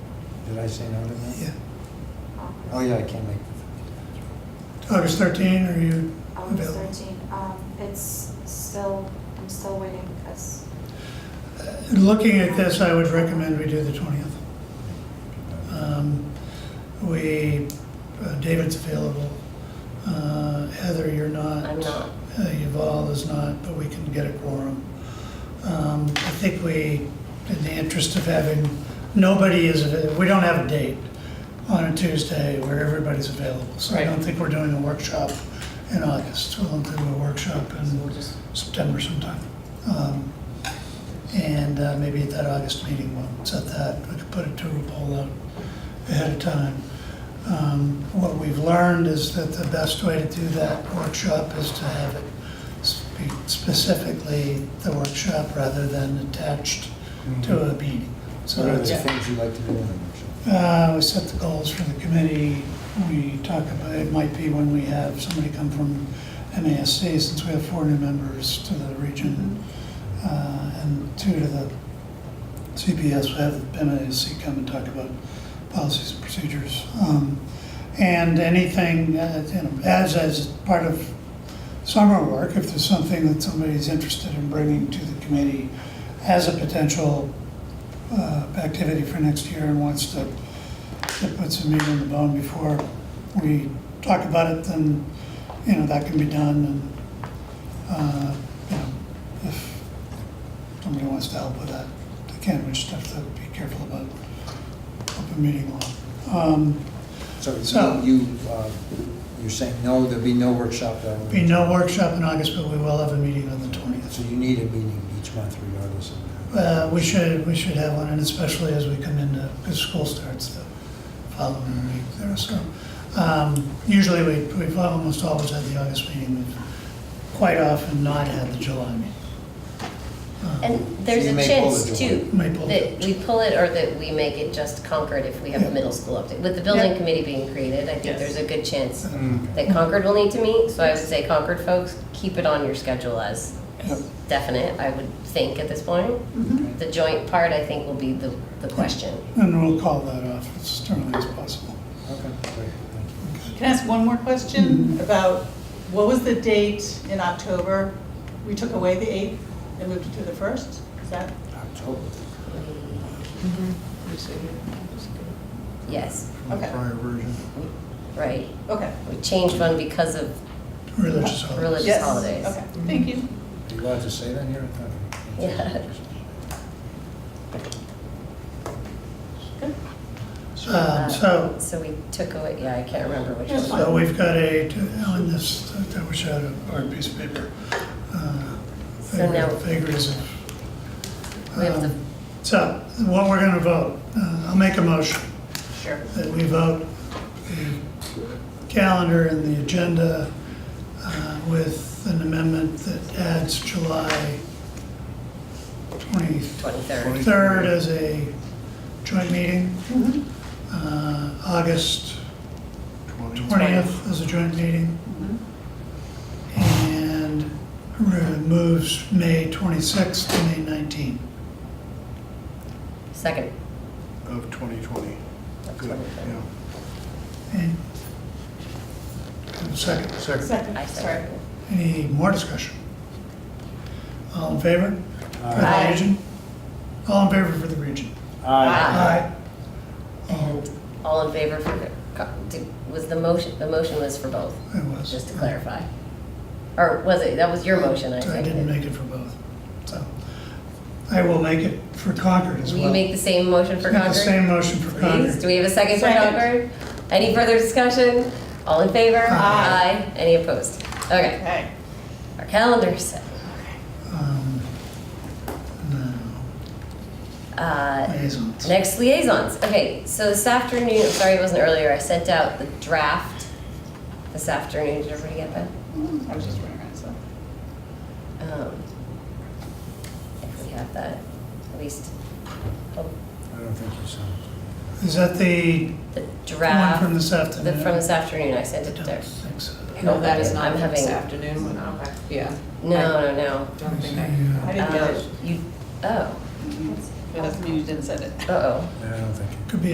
Did I say no to that? Yeah. Um, Oh, yeah, I can't make the August 13, are you August available? thirteen, um, it's still, I'm still waiting because Looking at this, I would recommend we do the 20th. Um, We, uh, David's available. Uh, Heather, you're not. I'm not. Uh, Yuval is not, but we can get a quorum. Um, I think we, in the interest of having, nobody is, avai- we don't have a date on a Tuesday where everybody's available. So I Right. don't think we're doing a workshop in August. We'll do a workshop So in we'll just- September sometime. Um, And uh, maybe at that August meeting, we'll set that, we could put it to a poll out ahead of time. Um, What we've learned is that the best way to do that workshop is to have it spe- specifically the workshop rather than attached Mm-hmm. Mm-hmm. to a meeting. So What are the that's, Yeah. things you'd like to do in the workshop? uh, we set the goals for the committee, we talk about, it might be when we have somebody come from MASC, since we have four new members to the region, uh, and two to the CPS, we have MASC come and talk about policies and procedures. Um, And anything, uh, you know, as, as part of summer work, if there's something that somebody's interested in bringing to the committee as a potential uh, activity for next year and wants to, to put some meat on the bone before we talk about it, then, you know, that can be done. And, uh, you know, if somebody wants to help with that, they can, we just have to be careful about open meeting law. Um, So So- you, uh, you're saying no, there'll be no workshop that Be week? no workshop in August, but we will have a meeting on the 20th. So you need a meeting each month regardless of. Uh, We should, we should have one, and especially as we come into, because school starts the following week there, so. um, Usually, we, we've almost always had the August meeting, we've quite often not had the July meeting. Um, And there's you a may pull chance it, too, May pull that it. we pull it or that we make it just Concord if we have Yeah. a middle school update. With the building Yeah. committee being created, I think Yes. there's a good chance Mm. that Concord will need to meet. So I would say Concord folks, keep it on your schedule as Yep. definite, I would think at this point. The joint part, I think, will be the, the question. And we'll call that off as early as possible. Okay, great, thank you. Can I ask one more question about, what was the date in October? We took away the 8th and moved it to the 1st? Is that? October. Mm-hmm. Yes, Okay. right. Okay. We changed one because of Religious holidays. Religious. Yes. holidays. Okay, thank you. Are you allowed to say that here? Okay. Yeah. Um, uh, So, So we took away, yeah, I can't remember which That's one. So we've got a, on this, I wish I had a hard piece of paper. uh, So vagary- now- Vagaries of. We have the- um, So what we're going to vote, uh, I'll make a motion Sure. that we vote the calendar and the agenda uh, with an amendment that adds July 23rd 23rd. as a joint meeting. Mm-hmm. Uh, August 20th is a joint meeting. And removes May 26th to May 19th. Second. of 2020. Of Good, 2020. yeah. And and second, Second, Second, I sorry. second. any more discussion? All in favor? For the Aye. region? All in favor for the region? Aye. Aye. Oh, All in favor for, the co- did- was the motion, the motion was for both, it was. just to clarify? Or was it, that was your motion, I So think? I didn't make it for both, so. I will make it for Concord as Will well. you make the same motion for Make the Concord? same motion for Please, do Concord. we have a second for Second. Concord? Any further discussion? All in favor? Aye. Aye. Any opposed? Okay, Okay. our calendar's set. Um, no, Uh, Liaisons. Next liaisons. Okay, so this afternoon, sorry it wasn't earlier, I sent out the draft this afternoon. Did everybody get that? I was just running around, so. Um, If we have that, at least oh, I don't think you sound. Is that the the one draft, from this the, afternoon? from this afternoon, I sent I it to don't Derek. think so. No, that is I'm not having- this afternoon, when I'm, yeah, No, no, no. don't think I. Yeah, I didn't get Uh, it. You, oh, Mm-hmm. That doesn't mean you didn't send it. uh-oh. I don't think. you- Could be